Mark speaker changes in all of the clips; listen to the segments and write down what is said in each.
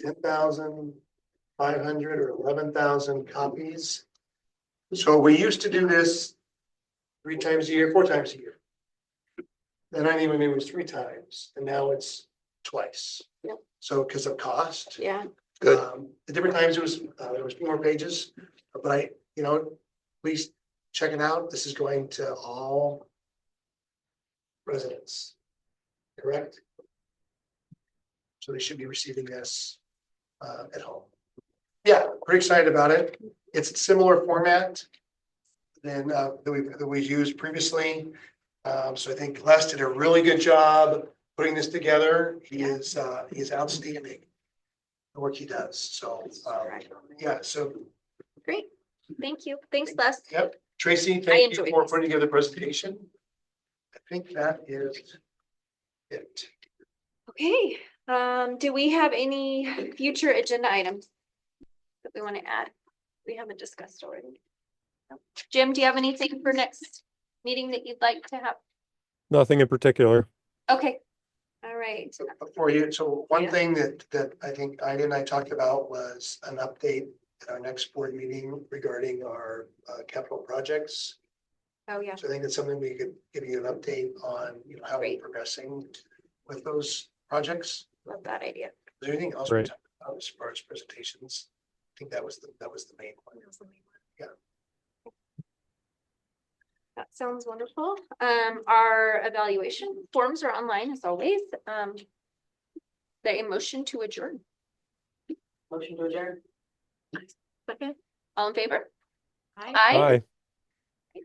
Speaker 1: ten thousand five hundred or eleven thousand copies. So we used to do this three times a year, four times a year. Then I even knew it was three times, and now it's twice.
Speaker 2: Yep.
Speaker 1: So because of cost.
Speaker 2: Yeah,
Speaker 3: Good.
Speaker 1: Um, At different times, it was, uh, there was more pages, but I, you know, please check it out. This is going to all residents, correct? So they should be receiving this uh, at home. Yeah, pretty excited about it. It's a similar format than uh, that we, that we used previously. Um, So I think Les did a really good job putting this together. He is, uh, he is outstanding the work he does, so, um,
Speaker 2: Right.
Speaker 1: yeah, so
Speaker 2: great. Thank you. Thanks, Les.
Speaker 1: Yep, Tracy, thank you
Speaker 2: enjoyed
Speaker 1: for
Speaker 2: this.
Speaker 1: putting together the presentation. I think that is it.
Speaker 2: Okay, um, do we have any future agenda items? That we want to add? We haven't discussed already. No. Jim, do you have anything for next meeting that you'd like to have?
Speaker 4: Nothing in particular.
Speaker 2: Okay, all right.
Speaker 1: So For you, so one
Speaker 2: Yeah.
Speaker 1: thing that, that I think Ida and I talked about was an update at our next board meeting regarding our uh, capital projects.
Speaker 2: Oh, yeah.
Speaker 1: So I think it's something we could give you an update on, you know, how we're
Speaker 2: Great.
Speaker 1: progressing with those projects.
Speaker 2: Love that idea.
Speaker 1: Is there anything else we
Speaker 4: Right.
Speaker 1: talked about as far as presentations? I think that was, the that was the main one.
Speaker 2: That sounds wonderful. Um, our evaluation forms are online as always. Um. The motion to adjourn.
Speaker 5: Motion to adjourn.
Speaker 2: Okay. All in favor?
Speaker 5: Aye.
Speaker 2: Aye.
Speaker 4: Bye.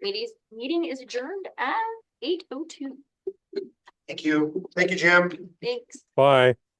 Speaker 2: Meeting, is- meeting is adjourned at eight oh two.
Speaker 1: Thank you. Thank you, Jim.
Speaker 2: Thanks.
Speaker 4: Bye.